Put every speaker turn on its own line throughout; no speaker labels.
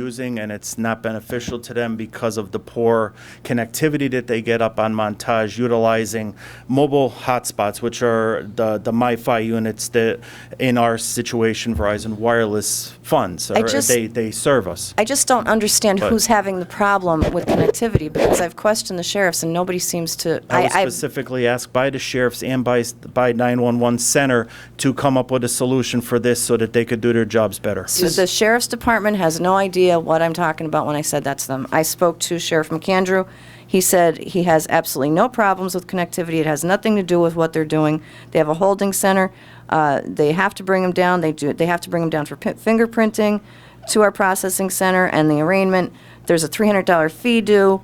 using, and it's not beneficial to them because of the poor connectivity that they get up on Montage, utilizing mobile hotspots, which are the, the MiFi units that, in our situation, Verizon Wireless funds, or
just-
they, they serve us.
I just don't understand
But-
who's having the problem with connectivity, because I've questioned the sheriffs, and nobody seems to,
I was
I, I,
specifically asked by the sheriffs and by, by 911 Center to come up with a solution for this so that they could do their jobs better.
So the sheriff's department has no idea what I'm talking about when I said that's them. I spoke to Sheriff McAndrew. He said he has absolutely no problems with connectivity. It has nothing to do with what they're doing. They have a holding center. Uh, They have to bring them down. They do, they have to bring them down for pi- fingerprinting to our processing center and the arraignment. There's a $300 fee due.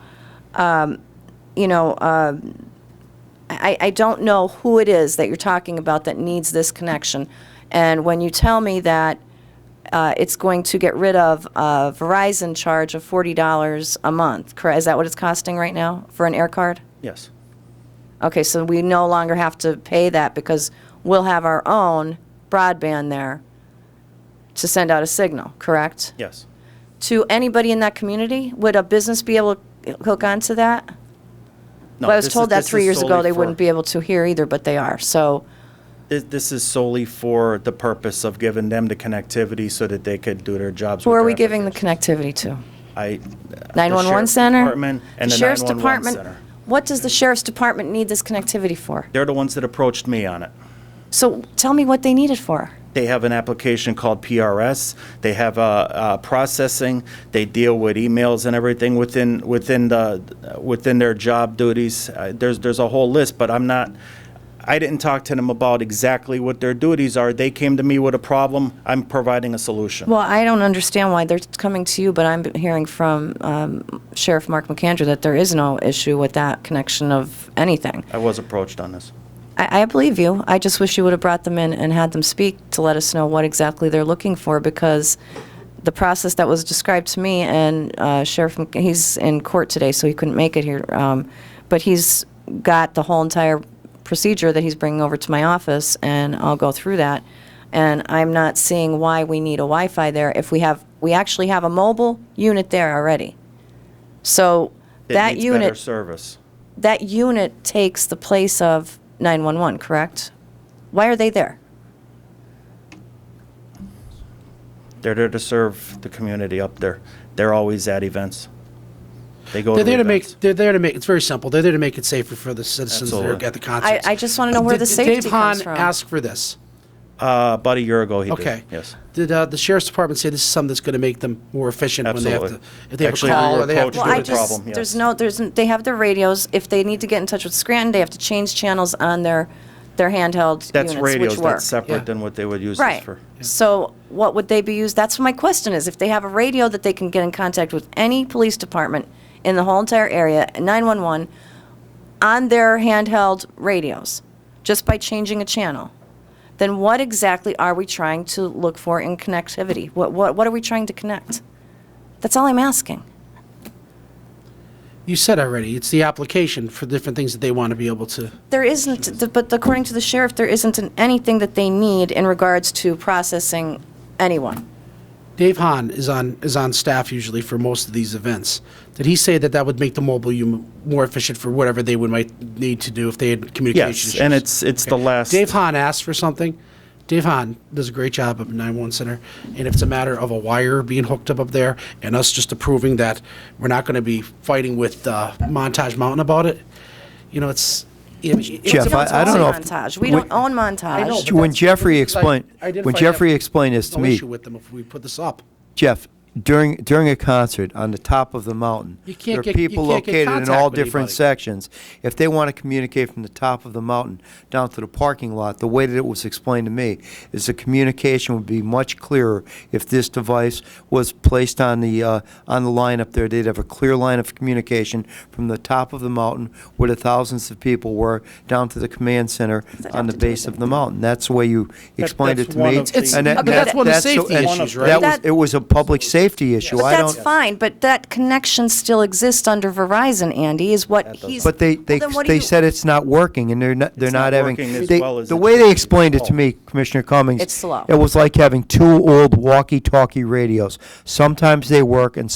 Um, You know, uh, I, I don't know who it is that you're talking about that needs this connection. And when you tell me that uh, it's going to get rid of a Verizon charge of $40 a month, correct? Is that what it's costing right now for an air card?
Yes.
Okay, so we no longer have to pay that because we'll have our own broadband there to send out a signal, correct?
Yes.
To anybody in that community? Would a business be able to hook onto that?
No,
Well, I was
this is-
told that
this
three
is
years ago,
solely
they
for-
wouldn't be able to here either, but they are, so.
This, this is solely for the purpose of giving them the connectivity so that they could do their jobs.
Who
with
are
their
we giving the
application.
connectivity to?
I. the
911
Sheriff's
Center?
Department and the
Sheriff's
911
Department.
Center.
What does the Sheriff's Department need this connectivity for?
They're the ones that approached me on it.
So tell me what they need it for.
They have an application called PRS. They have uh, uh, processing. They deal with emails and everything within within the within their job duties. Uh, there's there's a whole list, but I'm not. I didn't talk to them about exactly what their duties are. They came to me with a problem. I'm providing a solution.
Well, I don't understand why they're coming to you, but I'm hearing from um, Sheriff Mark McAndrew that there is no issue with that connection of anything.
I was approached on this.
I, I believe you. I just wish you would have brought them in and had them speak to let us know what exactly they're looking for because the process that was described to me and uh, Sheriff, Mc- he's in court today, so he couldn't make it here. Um, but he's got the whole entire procedure that he's bringing over to my office, and I'll go through that. And I'm not seeing why we need a Wi-Fi there if we have we actually have a mobile unit there already. So
It
that
needs
unit
better service.
that unit takes the place of 911, correct? Why are they there?
They're there to serve the community up there. They're always at events. They go
They're
to
there to make.
events.
They're there to make. It's very simple. They're there to make it safer for the citizens that
Absolutely.
are at the
I,
concerts.
I just want to know where
Did-
the
did
safety
Dave
comes
Hahn
from.
asked for this.
Uh, about a year ago, he did.
Okay.
Yes.
Did uh, the sheriff's department say this is something that's going to make them more efficient when they
Absolutely.
have to, if they have
Actually,
a
we
call
were
or they have to
approached
well,
do
with
I
it?
the
just
problem,
there's
yes.
no there's n- they have their radios. If they need to get in touch with Scranton, they have to change channels on their their handheld
That's
units,
radios.
which work.
That's separate
Yeah.
than what they would use this
Right.
for.
So what would they be used? That's my question is if they have a radio that they can get in contact with any police department in the whole entire area, 911, on their handheld radios, just by changing a channel, then what exactly are we trying to look for in connectivity? What, what, what are we trying to connect? That's all I'm asking.
You said already. It's the application for different things that they want to be able to.
There isn't, th- but according to the sheriff, there isn't an- anything that they need in regards to processing anyone.
Dave Hahn is on is on staff usually for most of these events. Did he say that that would make the mobile you more efficient for whatever they would might need to do if they had communication
Yes,
issues?
and it's it's the last.
Dave Hahn asked for something. Dave Hahn does a great job up at 911 Center. And if it's a matter of a wire being hooked up up there and us just approving that we're not going to be fighting with uh, Montage Mountain about it, you know, it's. I mean, it's
We
Jeff,
don't
I- I
own
don't know if-
Montage. We don't own Montage.
know, but
When
that's-
Jeffrey
I-
explained,
I did
when
find out-
Jeffrey explained this to
no
me,
issue with them if we put this up.
Jeff, during, during a concert on the top of the mountain,
You
there
can't
are
get- you
people
can't get
located in
contact
all
with
different
anybody.
sections. If they want to communicate from the top of the mountain down to the parking lot, the way that it was explained to me is the communication would be much clearer if this device was placed on the, uh, on the line up there. They'd have a clear line of communication from the top of the mountain where the thousands of people were down to the command center on the base of the mountain. That's the way you explained it
that's
to
one
me.
of the- It's-
And that-
but that's one of the
that's-
safety
and
issues,
That
right?
was, it was a public safety issue.
But
I
that's
don't-
fine, but that connection still exists under Verizon, Andy, is what he's.
But they, they,
Well, then what do
they
you-
said it's not working, and they're not, they're
It's not
not having.
working as
they-
well as
The
it
way
should.
they explained it to me, Commissioner Cummings.
Oh. It's slow.
It was like having two old walkie-talkie radios. Sometimes they work and